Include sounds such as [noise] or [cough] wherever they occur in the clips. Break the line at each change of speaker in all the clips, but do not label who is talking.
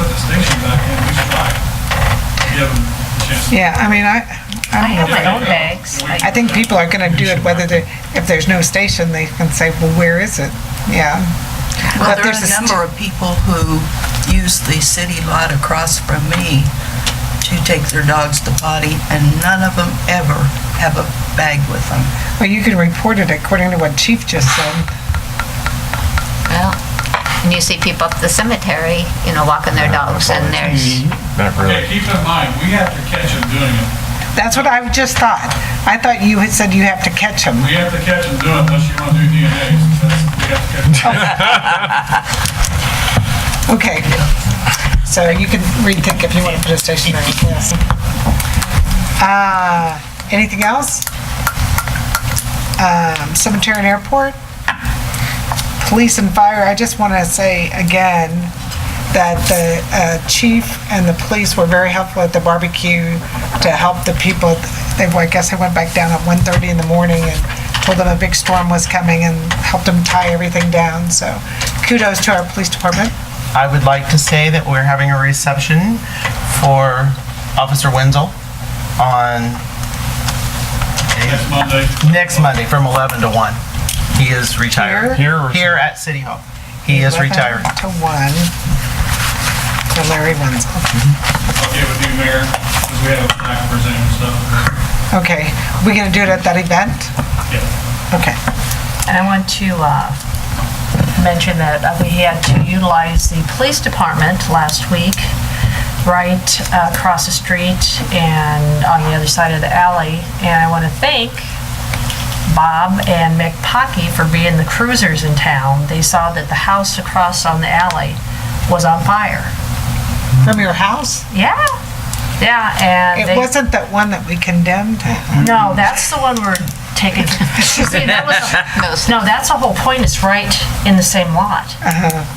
put the station back in, we should like, give them the chance.
Yeah, I mean, I,
I have
I'm,
my own bags.
I think people are gonna do it whether they, if there's no station, they can say, well, where is it? Yeah.
Well,
But
there are
there's
a
st-
number of people who use the city lot across from me to take their dogs to potty, and none of them ever have a bag with them.
Well, you can report it according to what Chief just said.
Well, and you see people up the cemetery, you know, walking their dogs
Oh,
and there's,
Mm-hmm. Not
Yeah,
really.
keep in mind, we have to catch them doing it.
That's what I just thought. I thought you had said you have to catch them.
We have to catch them doing it unless you want to do DNAs. That's, we have to catch 'em.
Okay. So you can rethink if you want to put a station there, yes. Uh, Anything else? Um, Cemetery and airport? Police and fire, I just want to say again that the uh, chief and the police were very helpful at the barbecue to help the people. They, I guess they went back down at 1:30 in the morning and told them a big storm was coming and helped them tie everything down, so kudos to our police department.
I would like to say that we're having a reception for Officer Wenzel on
Next Monday.
next Monday from 11 to 1. He is retiring.
Here or-
Here at City Hall. He is retiring.
Eleven To one, to Larry Wenzel.
I'll get with you, Mayor, because we have a flag presenting stuff.
Okay, we gonna do it at that event?
Yeah.
Okay,
And I want to uh, mention that uh, we had to utilize the police department last week, right uh, across the street and on the other side of the alley. And I want to thank Bob and Mick Pocky for being the cruisers in town. They saw that the house across on the alley was on fire.
from your house?
Yeah, yeah, and
It
they...
wasn't that one that we condemned?
No, that's the one we're taking, see, that was the
no, s-
No, that's the whole point, it's right in the same lot.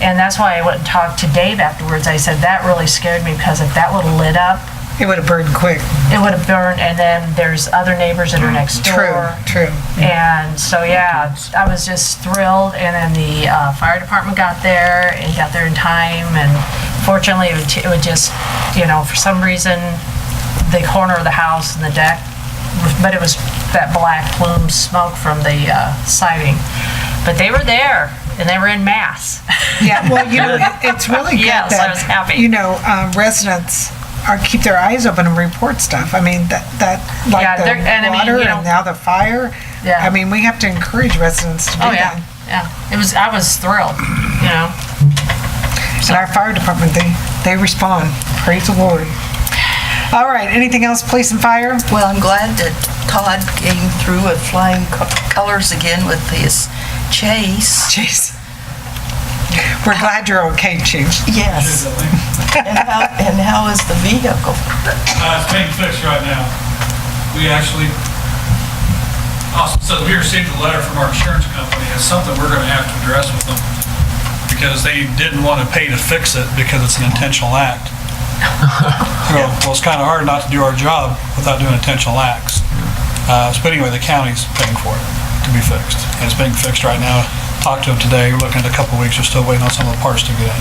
And that's why I went and talked to Dave afterwards. I said, that really scared me because if that would've lit up,
It would've burned quick.
it would've burned and then there's other neighbors that are next
True,
door.
true.
And so, yeah, I was just thrilled and then the uh, fire department got there and got there in time and fortunately it would t- it would just, you know, for some reason, the corner of the house and the deck, but it was that black plume smoke from the uh, siding. But they were there and they were in mass.
Yeah, well, you know, it- it's really good
Yes, I was
that,
happy.
you know, um, residents are, keep their eyes open and report stuff. I mean, that, that,
Yeah,
like
they're- and
the
I mean,
water
you know-
and now the fire.
Yeah.
I mean, we have to encourage residents to do
Oh,
that.
yeah, yeah. It was, I was thrilled, you know?
And our fire department, they, they respond. Praise the Lord. All right, anything else, police and fire? [laughs]
Well, I'm glad that Todd came through with flying colors again with his chase.
Jeez. We're glad you're okay, Chief.
Yes. And how, and how is the vehicle?
Uh, it's being fixed right now. We actually, also, so we received a letter from our insurance company, it's something we're gonna have to address with them, because they didn't wanna pay to fix it because it's an intentional act. So, Well, it's kinda hard not to do our job without doing intentional acts. Uh, so anyway, the county's paying for it to be fixed, and it's being fixed right now. Talked to them today, we're looking at a couple weeks, we're still waiting on some of the parts to get in.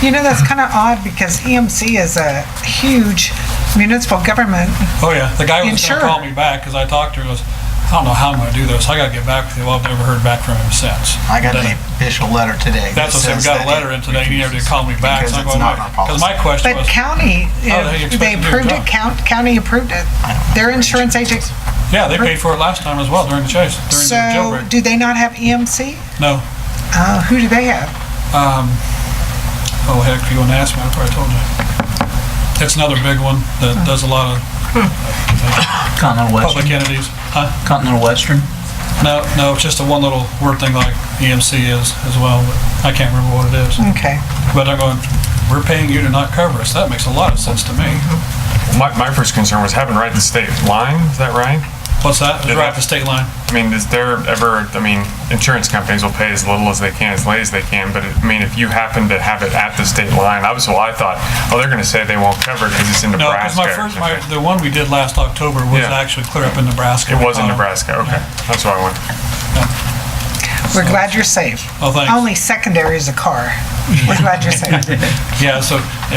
You know, that's kind of odd because EMC is a huge municipal government.
Oh, yeah, the guy was
Insured.
gonna call me back, because I talked to her, goes, I don't know how I'm gonna do this, I gotta get back with you, well, I've never heard back from him since.
I got
Then-
an official letter today. that
That's what I said, we
says
got a
that
letter
it
in today, he never did
refuses
call me back, so I'm going,
Because it's not our
because my
policy.
question
But
was,
county,
Oh, they
if
expect
they
them to do
approved
their
it,
job.
count- county approved it. Their insurance agent,
yeah, they paid for it last time as well during the chase, during the
so
jailbreak.
do they not have EMC?
No,
Uh, Who do they have?
um, oh heck, if you wanna ask me, I probably told you. That's another big one that does a lot of
Hmm.
Continental Western.
public entities, huh?
Continental Western.
No, no, it's just a one little word thing like EMC is as well, but I can't remember what it is.
Okay.
But I'm going, we're paying you to not cover us, that makes a lot of sense to me.
My, my first concern was having right to state line, is that right?
What's that? It's
Yeah.
right at the state line.
I mean, is there ever, I mean, insurance companies will pay as little as they can, as late as they can, but I mean, if you happen to have it at the state line, I was, well, I thought, oh, they're gonna say they won't cover it because it's in
No,
Nebraska.
because my first, my, the one we did last October was
Yeah.
actually clear up in Nebraska.
It was in
Um,
Nebraska, okay, that's why I went.
We're glad you're safe.
Oh, thanks. [laughs]
Only secondary is a car. We're glad you're safe.
Yeah, so it